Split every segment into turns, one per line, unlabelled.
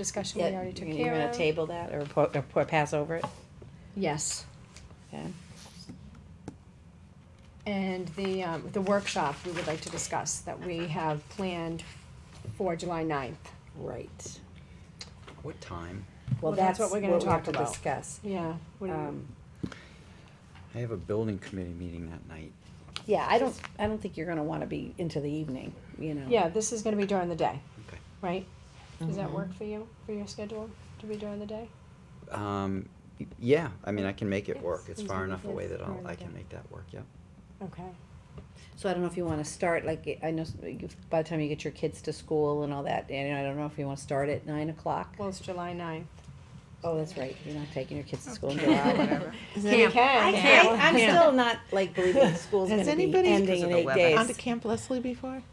discussion we
Yeah,
already took
you-
care
You're
of.
gonna table that or po- or po- pass over it?
Yes,
Okay.
and the, um, the workshop we would like to discuss that we have planned for July ninth.
Right.
What time?
Well, that's what we're gonna talk about. Discuss.
Yeah. what do you-
Um,
I have a building committee meeting that night.
yeah, I don't, I don't think you're gonna wanna be into the evening, you know?
Yeah, this is gonna be during the day,
Okay.
right? Does
Mm-hmm.
that work for you, for your schedule, to be during the day?
Um, y- yeah, I mean, I can make it work.
Yes,
It's far
easy.
enough away
Yes,
that I'll,
far
I
enough.
can make that work, yeah.
Okay.
So I don't know if you wanna start, like, I know, s- you- by the time you get your kids to school and all that, and I don't know if you wanna start at nine o'clock?
Well, it's July ninth.
Oh, that's right, you're not taking your kids to school in
Okay.
July.
Camp.
I
Camp.
can't, I'm still not, like, believing school's
Has
gonna be
anybody-
ending
Because
in
of
eight
the
days.
weather.
Gone to Camp Leslie before?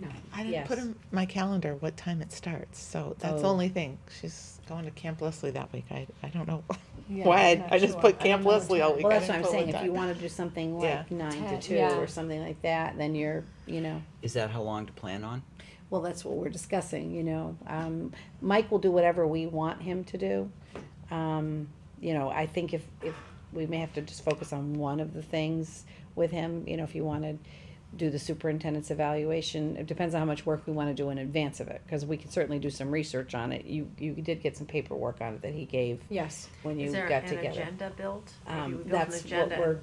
No.
I didn't put
Yes.
in my calendar what time it starts, so that's the
Oh.
only thing. She's going to Camp Leslie that week. I, I don't know
Yeah,
why.
not
I just
sure.
put
I
Camp
don't know what
Leslie all
time.
week.
Well,
I
that's what
didn't
I'm
put
saying,
what
if you
time.
wanna do something
Yeah.
like nine
Ten,
to two
yeah.
or something like that, then you're, you know.
Is that how long to plan on?
Well, that's what we're discussing, you know. Um, Mike will do whatever we want him to do. Um, you know, I think if, if, we may have to just focus on one of the things with him, you know, if you wanna do the superintendent's evaluation, it depends on how much work we wanna do in advance of it, cause we can certainly do some research on it. You, you did get some paperwork on it that he gave
Yes,
when you
Is there
got
an
together.
agenda built? If you
Um,
build an
that's what
agenda,
we're,
then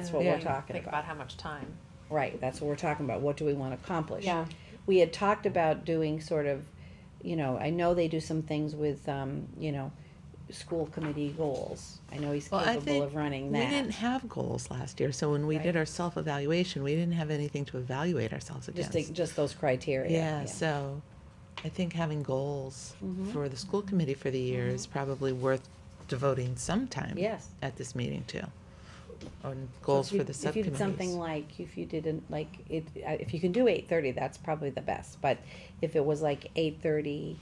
that's what we're
we
talking
Think
about.
about how much time.
right, that's what we're talking about. What do we wanna accomplish?
yeah,
we had talked about doing sort of, you know, I know they do some things with, um, you know, school committee goals. I know he's
Well, I
capable
think
of running
We didn't
that.
have goals last year, so when we
Right.
did our self-evaluation, we didn't have anything to evaluate ourselves
Just,
against.
the- just those criteria.
Yeah, so I think having goals
Mhm.
for the school committee for the year is probably worth devoting some time
Mm-hmm. Yes.
at this meeting to. On
So
goals
if you-
for the
If you did something
subcommittees.
like, if you didn't, like, it, uh, if you can do eight thirty, that's probably the best. But if it was like eight thirty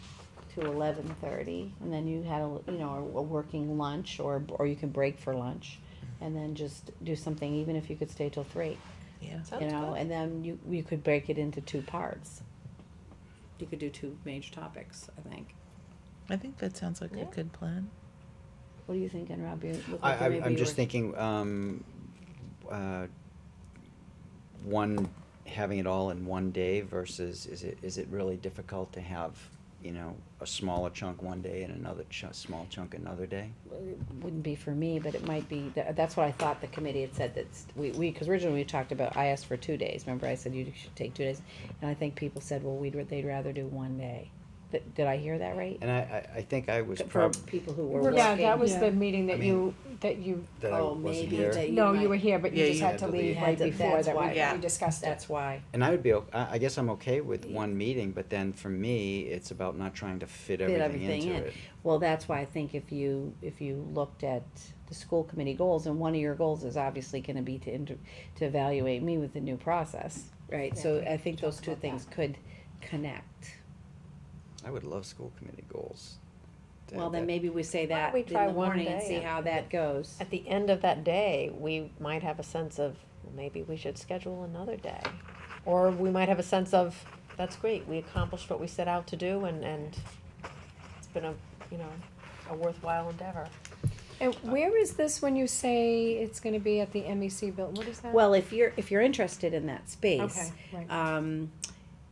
to eleven thirty, and then you had, a you know, a a working lunch, or, or you can break for lunch, and then just do something, even if you could stay till three.
Yeah,
you
Sounds
know,
good.
and then you, you could break it into two parts. You could do two major topics, I think.
I think that sounds like
Yeah.
a good plan.
What are you thinking, Rob? You look
I,
like you
I,
maybe
I'm
you
just
were-
thinking, um, uh, one, having it all in one day versus, is it, is it really difficult to have, you know, a smaller chunk one day and another chu- small chunk another day?
Wouldn't be for me, but it might be, tha- that's what I thought the committee had said, that's, we, we, cause originally we talked about, I asked for two days, remember I said you should take two days? And I think people said, well, we'd, they'd rather do one day. Th- Did I hear that right?
And I, I, I think I was
For
prob-
people who were working.
yeah, that was
Yeah.
the meeting that
I mean,
you, that you,
that I
Oh,
wasn't
maybe
here.
that you
no, you
might-
were here, but you
Yeah,
just
you
had to
had to
leave
leave.
right
Had to-
before
that's
that
why.
we-
Yeah.
we discussed it.
That's why.
And I would be, o- I, I guess I'm okay with one meeting, but then for me, it's about not trying to
fit
fit everything
everything
into
in.
it.
Well, that's why I think if you, if you looked at the school committee goals, and one of your goals is obviously gonna be to inter, to evaluate me with the new process, right? So I think those two things could connect.
I would love school committee goals. to
Well,
have
then
that.
maybe we say that
we
in
try
the
one
morning and
day
see
and-
how that goes.
At the end of that day, we might have a sense of, well, maybe we should schedule another day. Or we might have a sense of, that's great, we accomplished what we set out to do and, and it's been a, you know, a worthwhile endeavor.
And where is this when you say it's gonna be at the MEC building? What is that?
Well, if you're, if you're interested in that
Okay,
space,
right.
um,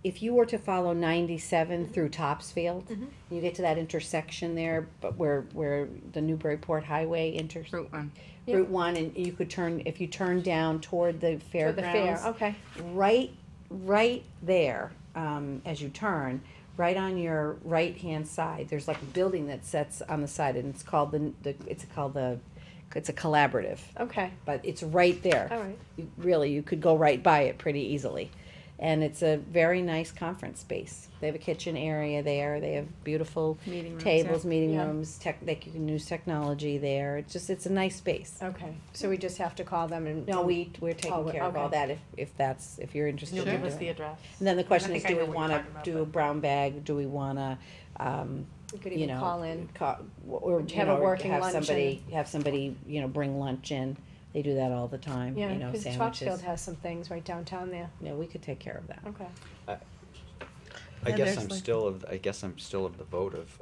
if you were to follow ninety-seven through Topsfield, you get to that intersection there, but where, where the Newburyport Highway inter,
Route one.
Yeah.
Route One, and you could turn if you turn down toward the
For the fair,
fairgrounds.
okay.
Right, right there, um, as you turn, right on your right hand side. There's like a building that sets on the side, and it's called the, the it's called the it's a collaborative,
Okay,
but it's right there.
all right.
You, really, you could go right by it pretty easily. And it's a very nice conference space. They have a kitchen area there. They have beautiful
Meeting rooms, yeah.
tables, meeting
Yeah.
rooms. Tech, they can use technology there. It's just it's a nice space.
Okay, so we just have to call them and.
No, we, we're
Oh,
taking
we-
care of all
okay.
that if, if that's, if you're interested
You'll
in
give us
doing
the
it.
address.
And then the question
I
is,
think
do
I
we
know what you're
wanna
talking about,
do a
but-
brown bag, do we wanna, um,
We could
you
even
know.
call in.
ca- Or, you
Have a
know, or
working
have
luncheon.
somebody, have somebody, you know, bring lunch in, they do that all the time, mm, you
Yeah,
know,
cause
sandwiches.
Topsfield has some things right downtown there.
Yeah, we could take care of that.
Okay.
I guess
Yeah, there's
I'm
like-
still of, I guess I'm still of the vote of,